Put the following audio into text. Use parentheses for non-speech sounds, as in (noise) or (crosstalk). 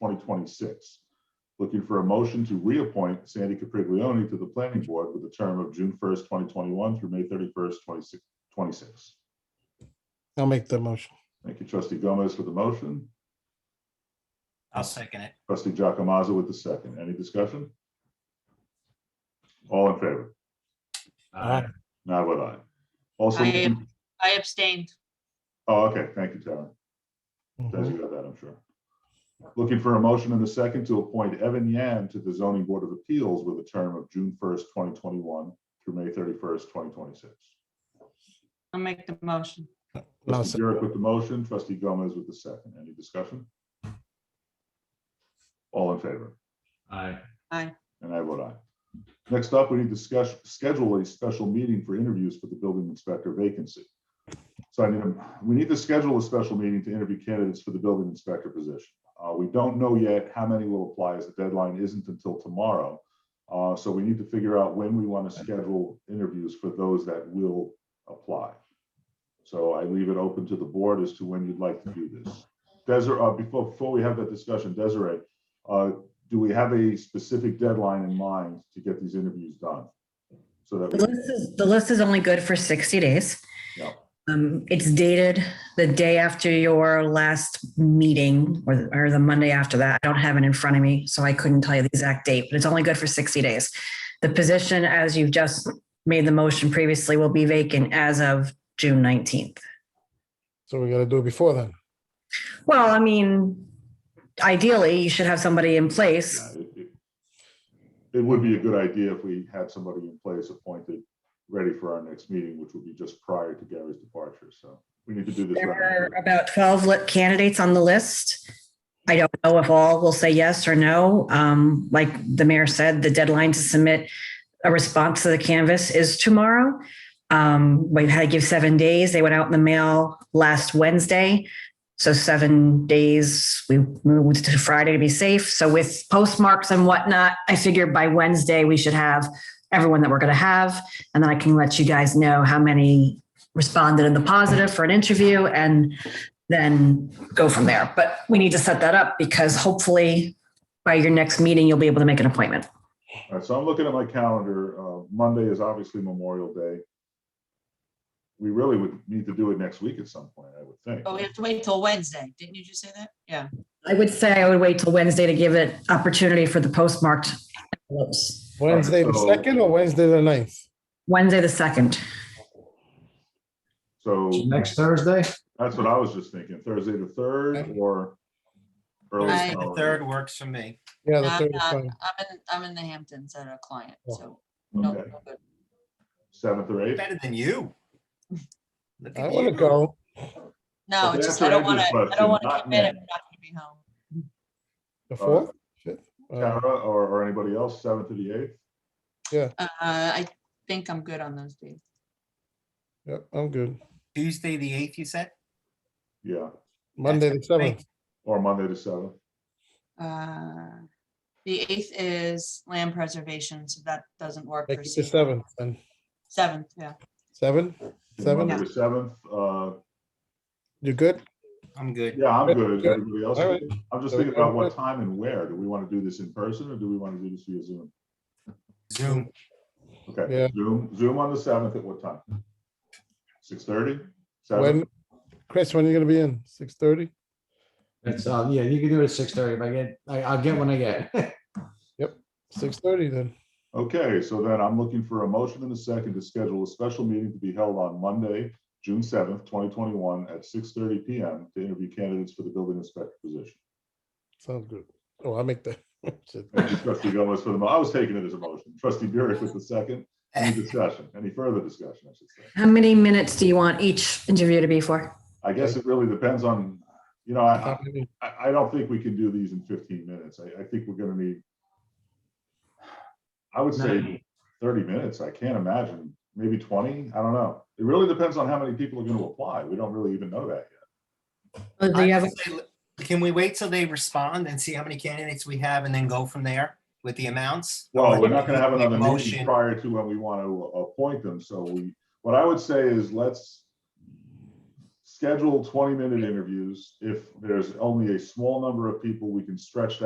26. Looking for a motion to reappoint Sandy Capriglione to the planning board with a term of June 1st, 2021 through May 31st, 26 26. I'll make the motion. Thank you, trustee Gomez for the motion, I'll second it. trustee Giacomazzo with the second. Any discussion? All in favor? Aye. Not what I. Also, I am- I abstained. oh, okay, thank you, Tara. As Mhm. you got that, I'm sure. Looking for a motion and a second to appoint Evan Yan to the zoning board of appeals with a term of June first, twenty twenty-one through May thirty-first, twenty twenty-six. I'll make the motion. And I'll Trustee second. Burek with the motion, trustee Gomez with the second. Any discussion? All in favor? Aye. And I vote aye. Next up, we need to discuss, schedule a special meeting for interviews for the building inspector vacancy. So I need, a- we need to schedule a special meeting to interview candidates for the building inspector position. Uh, we don't know yet how many will apply as the deadline isn't until tomorrow. Uh, so we need to figure out when we want to schedule interviews for those that will apply. So I leave it open to the board as to when you'd like to do this. Desiree, uh, before, before we have that discussion, Desiree, uh, do we have a specific deadline in mind to get these interviews done? So that, The we list is, the list is only good for 60 days. Yeah. Um, it's dated the day after your last meeting or, or the Monday after that. I don't have it in front of me, so I couldn't tell you the exact date, but it's only good for 60 days. The position, as you've just made the motion previously, will be vacant as of June 19th. So we gotta do it before then. Well, I mean, ideally, you should have somebody in place. yeah, it- it- It would be a good idea if we had somebody in place appointed, ready for our next meeting, which would be just prior to Gary's departure, so we need to do this. There right are about 12 li- candidates on the list. I don't know if all will say yes or no. Um, Like the mayor said, the deadline to submit a response to the canvas is tomorrow. Um, We've had to give seven days. They went out in the mail last Wednesday. So seven days, we moved to Friday to be safe. So with postmarks and whatnot, I figured by Wednesday, we should have everyone that we're going to have. And then I can let you guys know how many responded in the positive for an interview and then go from there. But we need to set that up because hopefully by your next meeting, you'll be able to make an appointment. All right, so I'm looking at my calendar. Uh, Monday is obviously Memorial Day. We really would need to do it next week at some point, I would think. But Oh, we have to wait till Wednesday. Didn't you just say that? Yeah. I would say I would wait till Wednesday to give it opportunity for the postmarked envelopes. Wednesday the so- second or Wednesday the ninth? Wednesday, the second. So Next Thursday? that's what I was just thinking, Thursday the third or early. Aye. The third works for me. Yeah, the No, third is no. fine. Oh, I'm in, I'm in the Hamptons at a client, so. no, Okay, no good. seventh or eighth. Better than you. Look I at want to you. go. No, But it's that's just, I don't what want I to, do I don't question, want to not commit if men. I'm not going to be home. The fourth? Shit. Uh, Tara or, or anybody else, seventh to the eighth? Uh, I think I'm good on those days. Yep, I'm good. Tuesday, the eighth, you said? Yeah, Monday the seventh. or Monday the seventh. Uh, The eighth is land preservation, so that doesn't work. Make for it the Steve. seventh and Seventh, yeah. seven. Seven? Monday the seventh, uh, You good? I'm good. yeah, I'm Good, good. good. Everybody else? All is right. good? I'm just So thinking we're about what good. time and where. Do we want to do this in person or do we want to do this via Zoom? Zoom. Okay, Yeah. Zoom, Zoom on the seventh at what time? Six thirty? When, Chris, when are you gonna be in? Six thirty? It's, uh, yeah, you can do it at six thirty. If I get, I, I'll get when I get. Six thirty then. Okay, so then I'm looking for a motion and a second to schedule a special meeting to be held on Monday, June seventh, twenty twenty-one at six thirty PM to interview candidates for the building inspector position. Sounds good. Oh, I'll make the. (laughs) shit. Thank you, Trustee Gomez for the, mo- I was taking it as a motion. Trustee Burek with the second. Any discussion, any further discussion, I should say. How many minutes do you want each interview to be for? I guess it really depends on, you know, I, How many? I, I don't think we can do these in fifteen minutes. I, I think we're gonna need. I would say Ninety. thirty minutes. I can't imagine, maybe twenty. I don't know. It really depends on how many people are gonna apply. We don't really even know that Or Do I you have, would say, Can we wait till they respond and see how many candidates we have and then go from there with the amounts? yet. Well, Or we're not gonna have make another meeting motion. prior to when we want to appoint them, so we, what I would say is let's. Schedule twenty-minute interviews. If there's only a small number of people, we can stretch that